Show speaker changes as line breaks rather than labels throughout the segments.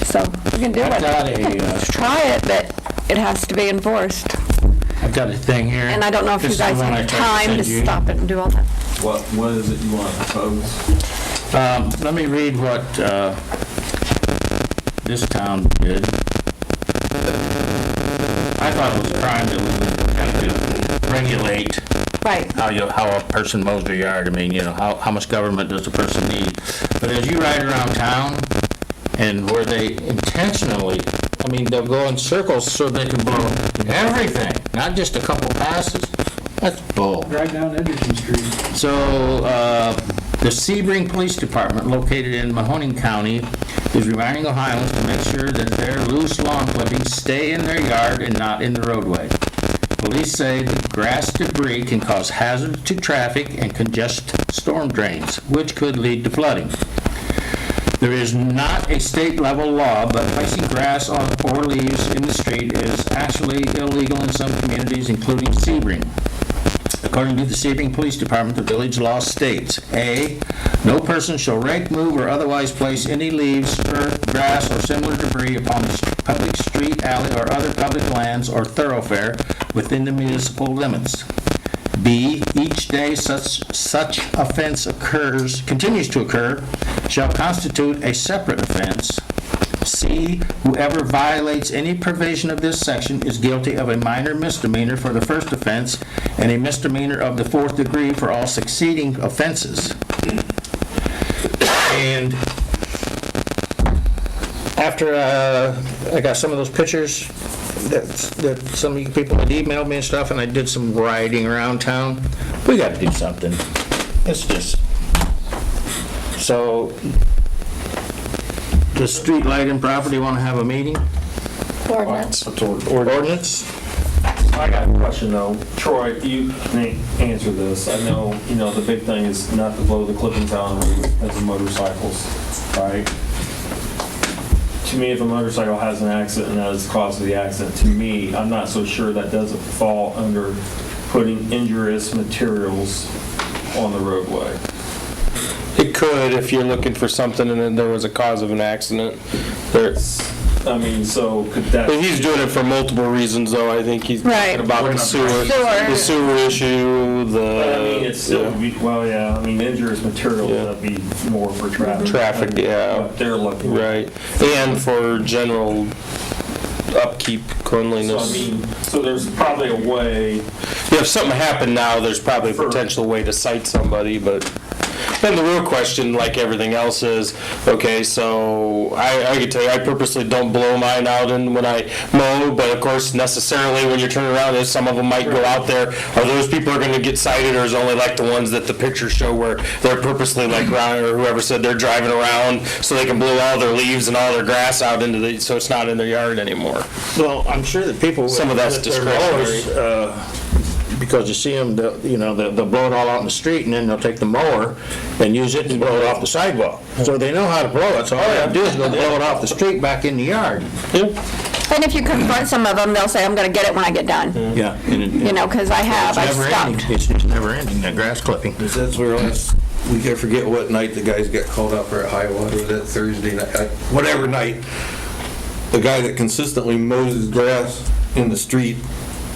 so we can do
I've
it.
got a, uh,
Let's try it, but it has to be enforced.
I've got a thing here.
And I don't know if you
This is the
guys
one I
have
tried
time to
send you.
stop it and do all that.
What, what is it you want to propose?
Um, Let me read what uh, this town did. I thought it was a crime to kind of regulate
Right,
how you, how a person mows their yard. I mean, you know, how, how much government does a person need? But as you ride around town and where they intentionally, I mean, they'll go in circles so they can blow everything, not just a couple passes. That's bull.
Right down Edgerton Street.
So, uh, the Sebring Police Department, located in Mahoning County, is reminding Ohioans to make sure that their loose lawn clippings stay in their yard and not in the roadway. Police say that grass debris can cause hazard to traffic and congest storm drains, which could lead to flooding. There is not a state-level law, but placing grass on or leaves in the street is actually illegal in some communities, including Sebring. According to the Sebring Police Department, the village law states, A, no person shall rake, move, or otherwise place any leaves, earth, grass, or similar debris upon the public street, alley, or other public lands or thoroughfare within the municipal limits. B, each day such, such offense occurs, continues to occur, shall constitute a separate offense. C, whoever violates any provision of this section is guilty of a minor misdemeanor for the first offense and a misdemeanor of the fourth degree for all succeeding offenses. And after, uh, I got some of those pictures that, that some of you people had emailed me and stuff, and I did some riding around town, we gotta do something. It's just, so, the street lighting property wanna have a meeting?
ordinance.
Ordinance?
I got a question though. Troy, you can answer this. I know, you know, the big thing is not to blow the clippings out as the motorcycles, right? To me, if a motorcycle has an accident and that is the cause of the accident, to me, I'm not so sure that doesn't fall under putting injurious materials on the roadway.
It could, if you're looking for something and then there was a cause of an accident. There,
I mean, so could that?
but he's doing it for multiple reasons, though. I think he's
Right.
talking about the sewer,
Sewer.
the sewer issue, the.
But I mean, it's still,
yeah.
be- well, yeah, I mean, injurious material
Yeah.
would be more for traffic.
Traffic,
than
yeah.
what They're looking.
Right, and for general upkeep,
So I
cleanliness.
mean, so there's probably a way,
Yeah, If something happened now, there's probably a potential way to cite somebody, but then the real question, like everything else, is, okay, so I, I could tell you, I purposely don't blow mine out in when I mow, but of course necessarily when you're turning around, is some of them might go out there. Are those people are gonna get cited, or is only like the ones that the pictures show where they're purposely like, round- or whoever said they're driving around so they can blow all their leaves and all their grass out into the, so it's not in their yard anymore?
Well, I'm sure that people.
Some of that's
with their mowers,
discretionary.
uh, Because you see them, you know, they'll they'll blow it all out in the street, and then they'll take the mower and use it and blow it off the sidewalk. So they know how to blow it, so all they have to do is go blow it off the street back in the yard.
And if you confront some of them, they'll say, I'm gonna get it when I get done,
Yeah. and it-
you know, because I have,
It's
I've
never ending.
stopped.
It's just never ending, that grass clipping.
Since we're on this, we can forget what night the guys got called out for at high water, was that Thursday night, uh, whatever night. The guy that consistently mows his grass in the street,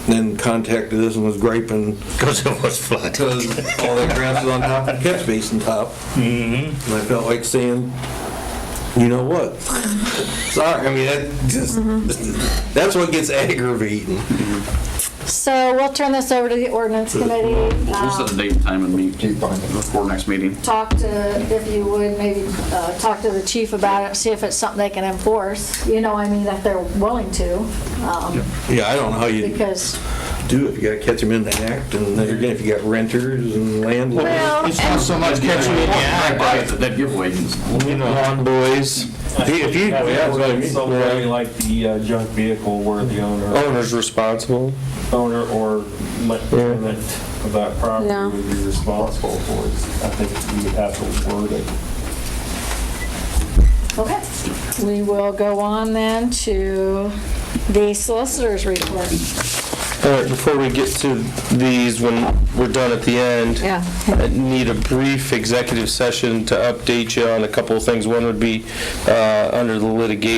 then contacted us and was griping
Because it was flooded.
because all that grass is on top of the catch basin top. And I felt like saying, you know what? Sorry, I mean, that just, that's what gets aggravating.
So we'll turn this over to the ordinance committee. um,
We'll set a date and time and meet before next meeting.
Talk to, if you would, maybe uh, talk to the chief about it, see if it's something they can enforce. You know, I mean, if they're willing to, um,
Yeah, I don't know how you
because,
do it, you gotta catch them in the act, and then again, if you got renters and landlords.
Well,
It's not so much catching it in the eye, but
That that giveaway is
Lawn boys.
if you,
have
yeah, that's what I mean.
somebody
Yeah.
like the uh, junk vehicle where the owner,
Owner's responsible.
owner or le- tenant of that
No.
property would be responsible for it. I think you would have to word it.
okay. We will go on then to the solicitor's report.
All right, before we get to these, when we're done at the end.
Yeah.
I need a brief executive session to update you on a couple of things. One would be, uh, under the litigation.